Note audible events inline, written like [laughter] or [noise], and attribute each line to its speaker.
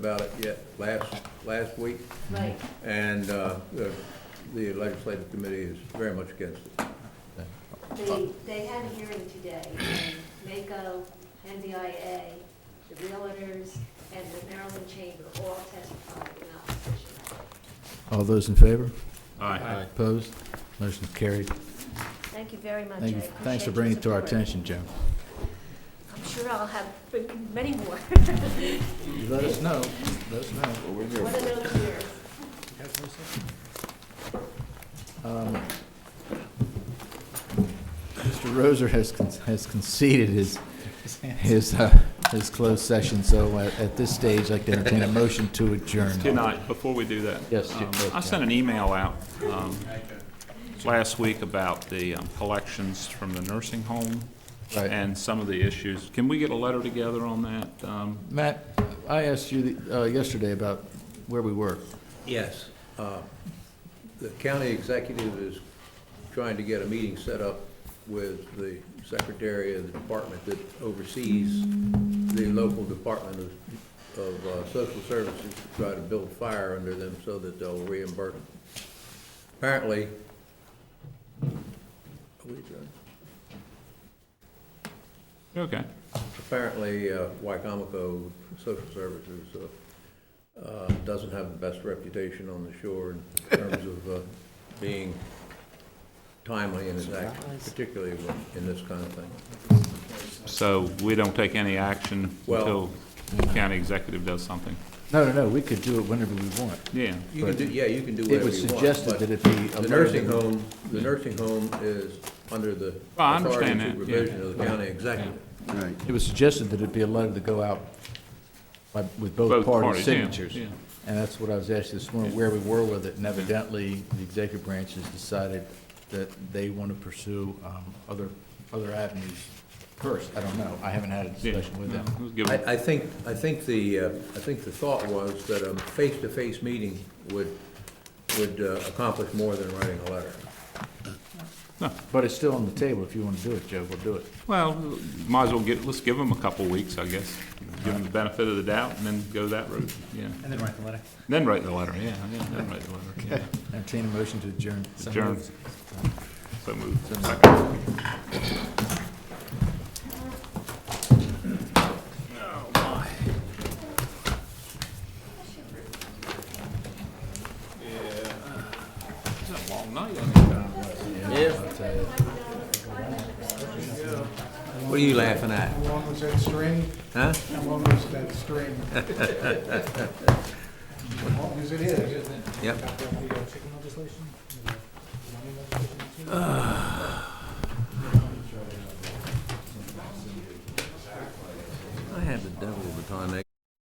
Speaker 1: about it yet last, last week,
Speaker 2: Right.
Speaker 1: and uh, the the legislative committee is very much against it.
Speaker 2: They, they had a hearing today, and MACO, NBIA, the realtors, and the Maryland Chamber all testified in opposition.
Speaker 3: All those in favor?
Speaker 4: Aye.
Speaker 3: Opposed? Motion carried.
Speaker 2: Thank you very much. I
Speaker 3: Thank you.
Speaker 2: appreciate
Speaker 3: Thanks for
Speaker 2: your
Speaker 3: bringing it to our
Speaker 2: support.
Speaker 3: attention, Joe.
Speaker 2: I'm sure I'll have [laughs] many more.
Speaker 3: You let us know, let us know.
Speaker 2: One of those years.
Speaker 3: Mr. Roser has, con- has conceded his, his, uh, his closed session, so at at this stage, I'd like to entertain a motion to adjourn.
Speaker 4: Tonight, before we do that.
Speaker 3: Yes,
Speaker 4: um,
Speaker 3: yes,
Speaker 4: I sent an email out um, last week about the um, collections from the nursing home
Speaker 3: Right.
Speaker 4: and some of the issues. Can we get a letter together on that? Um,
Speaker 3: Matt, I asked you the- uh, yesterday about where we were.
Speaker 1: Yes. Uh, The county executive is trying to get a meeting set up with the secretary of the department that oversees the local department of, of uh, social services to try to build fire under them so that they'll reimburse. them. Apparently, are we adjourned?
Speaker 4: Okay,
Speaker 1: apparently, uh, Wycomico Social Services uh, uh, doesn't have the best reputation on the shore in terms of uh, being timely in its action, particularly in this kind of thing.
Speaker 4: so we don't take any action until
Speaker 1: Well-
Speaker 4: the county executive does something?
Speaker 3: No, no, no, we could do it whenever we want.
Speaker 4: Yeah,
Speaker 1: You can do, yeah, you can do
Speaker 3: It
Speaker 1: whatever
Speaker 3: was
Speaker 1: you want.
Speaker 3: suggested
Speaker 1: but
Speaker 3: that it be
Speaker 1: The
Speaker 3: alerted.
Speaker 1: nursing home, the nursing home is under the
Speaker 4: Well, I
Speaker 1: authority
Speaker 4: understand
Speaker 1: and
Speaker 4: that, yeah.
Speaker 1: supervision of the county executive.
Speaker 5: Right.
Speaker 3: It was suggested that it be allowed to go out by- with
Speaker 4: Both
Speaker 3: both parties'
Speaker 4: parties, yeah,
Speaker 3: signatures.
Speaker 4: yeah.
Speaker 3: And that's what I was asking this morning, where we were with it, and evidently, the executive branch has decided that they want to pursue um, other, other avenues first. I don't know, I haven't had a
Speaker 4: yeah.
Speaker 3: discussion with
Speaker 4: No,
Speaker 3: them.
Speaker 4: we'll give them-
Speaker 1: I, I think, I think the, uh, I think the thought was that a face-to-face meeting would, would uh, accomplish more than writing a letter.
Speaker 3: But it's still on the table, if you want to do it, Joe, we'll do it.
Speaker 4: Well, might as well get, let's give them a couple weeks, I guess. Give them the benefit of the doubt and then go that route, yeah.
Speaker 6: And then write the letter.
Speaker 4: Then write the letter, yeah, yeah, then write the letter, yeah.
Speaker 3: Entertain a motion to adjourn.
Speaker 4: Adjourn. So moved. Second. It's a long night, isn't it?
Speaker 1: What are you laughing at?
Speaker 7: How long was that string?
Speaker 1: Huh?
Speaker 7: How long was that string? As long as it is.
Speaker 1: Yep. I had the devil of a time.